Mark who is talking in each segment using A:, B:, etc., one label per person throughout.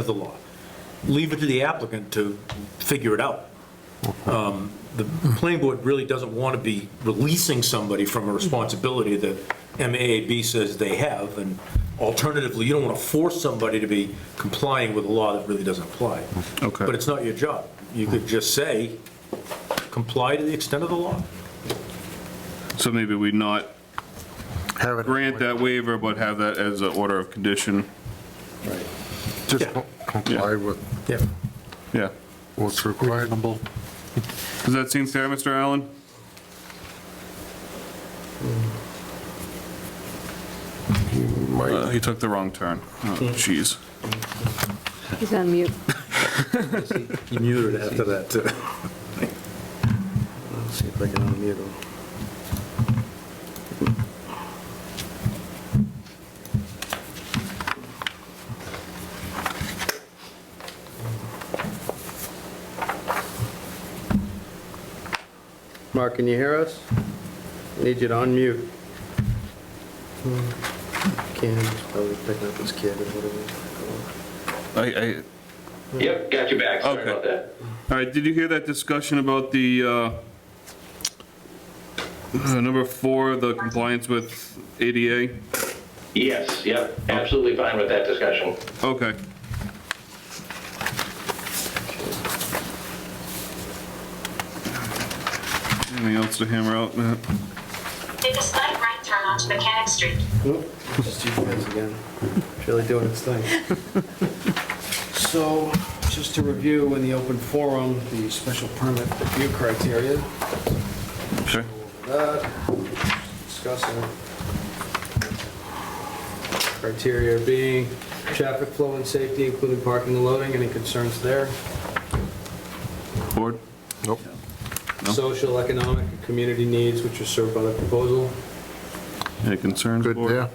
A: of the law. Leave it to the applicant to figure it out. Um, The planning board really doesn't want to be releasing somebody from a responsibility that MAAB says they have, and alternatively, you don't want to force somebody to be complying with a law that really doesn't apply.
B: Okay.
A: But it's not your job. You could just say, comply to the extent of the law.
B: So maybe we not
C: Have it.
B: grant that waiver, but have that as an order of condition.
C: Just
A: Yeah.
C: comply with
A: Yeah.
B: Yeah.
C: what's required.
B: Does that seem fair, Mr. Allen? Uh,
C: Might-
B: He took the wrong turn. Oh, Jeez.
D: He's on mute.
A: You muted after that, too.
E: Let's see if I can unmute him. Mark, can you hear us? I Need you to unmute. Ken, he's probably picking up his kid or whatever.
B: I, I,
F: Yep, got you back. Sorry
B: Okay.
F: about that.
B: all right, did you hear that discussion about the, uh, uh, number four, the compliance with ADA?
F: Yes, yep, absolutely fine with that discussion.
B: Okay. Anything else to hammer out, Matt?
G: Take a slight right turn onto Mechanic Street.
E: Nope, Just you guys again. It's really doing its thing.
H: So, just to review in the open forum, the special permit review criteria,
B: Sure.
E: that, discussing. Criteria being traffic flow and safety, including parking and loading, any concerns there?
B: Board?
C: Nope.
B: No.
E: Social, economic, and community needs which are served by the proposal,
B: Any concerns,
C: Good,
B: board?
C: yeah.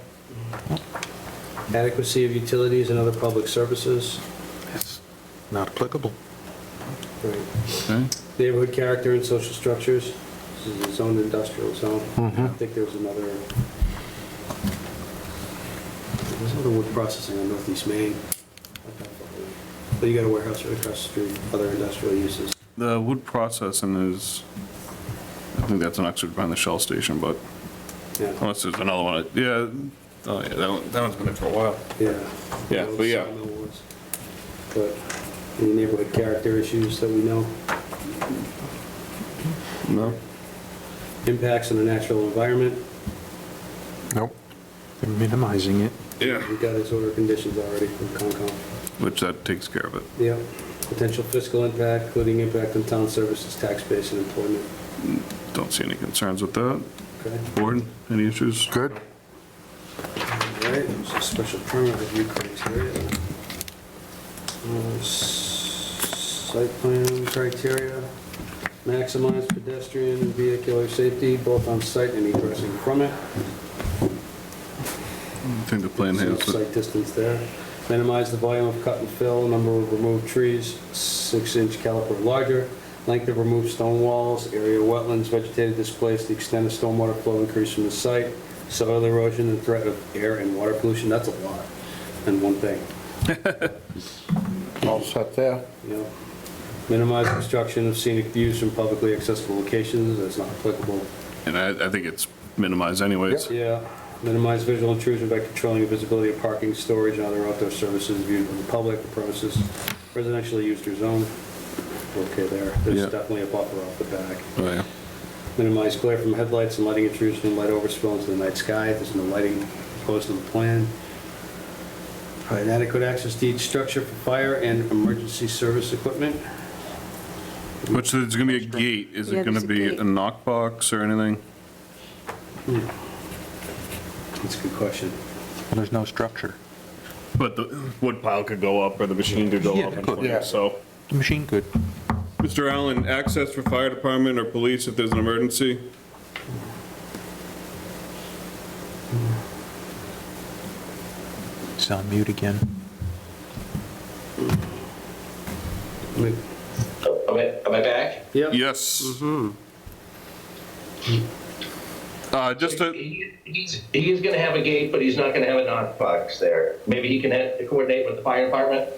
E: adequacy of utilities and other public services.
C: Not applicable.
E: Right.
B: Okay.
E: Neighborhood character and social structures, this is a zoned industrial zone.
B: Mm-hmm.
E: I think there was another, there's another wood processing on Northeast Main. But you got a warehouse right across the street, other industrial uses.
B: The wood processing is, I think that's an Oxford behind the Shell Station, but
E: Yeah,
B: unless there's another one, yeah, oh, yeah, that one, that one's been there for a while.
E: yeah.
B: Yeah, but yeah.
E: Sawmill was. But any neighborhood character issues that we know,
B: No?
E: impacts on the natural environment,
C: Nope.
H: minimizing it.
B: Yeah.
E: we got his order of conditions already from Concom.
B: Which that takes care of it.
E: Yeah, potential fiscal impact, including impact on town services, tax base, and employment.
B: Don't see any concerns with that.
E: Okay,
B: Board, any issues?
C: Good.
E: all right, so special permit review criteria. Uh, s- Site plan criteria, maximize pedestrian and vehicular safety, both on site and egressing from it.
B: I think the plan
E: So
B: has,
E: Site distance there. Minimize the volume of cut and fill, number of removed trees, six-inch caliper or larger, length of removed stone walls, area of wetlands, vegetated displaced, the extent of stormwater flow increase from the site, soil erosion, and threat of air and water pollution, that's a lot, in one thing,
C: All set there.
E: you know. Minimize obstruction of scenic views from publicly accessible locations, that's not applicable.
B: and I, I think it's minimized anyways.
E: Yeah, minimize visual intrusion by controlling the visibility of parking, storage, and other outdoor services viewed from the public or premises residentially used or zoned. Okay, there,
B: Yeah.
E: there's definitely a buffer off the back.
B: Oh, yeah.
E: Minimize glare from headlights and lighting intrusion and light overspill into the night sky, there's no lighting proposed on the plan. Provide adequate access to each structure for fire and emergency service equipment.
B: Which there's gonna be a gate, is
D: Yeah,
B: it gonna
D: there's a
B: be
D: gate.
B: a knock box or anything?
E: That's a good question.
I: There's no structure.
B: But the wood pile could go up or the machine could go up and
C: Yeah.
B: clear, so.
I: The machine could.
B: Mr. Allen, access for fire department or police if there's an emergency?
I: It's on mute again.
E: I mean,
F: Oh, Am I, am I back?
E: Yep.
B: Yes. Mm-hmm. Uh, just to,
F: He- He's, he is gonna have a gate, but he's not gonna have a knock box there. Maybe he can ha- coordinate with the fire department?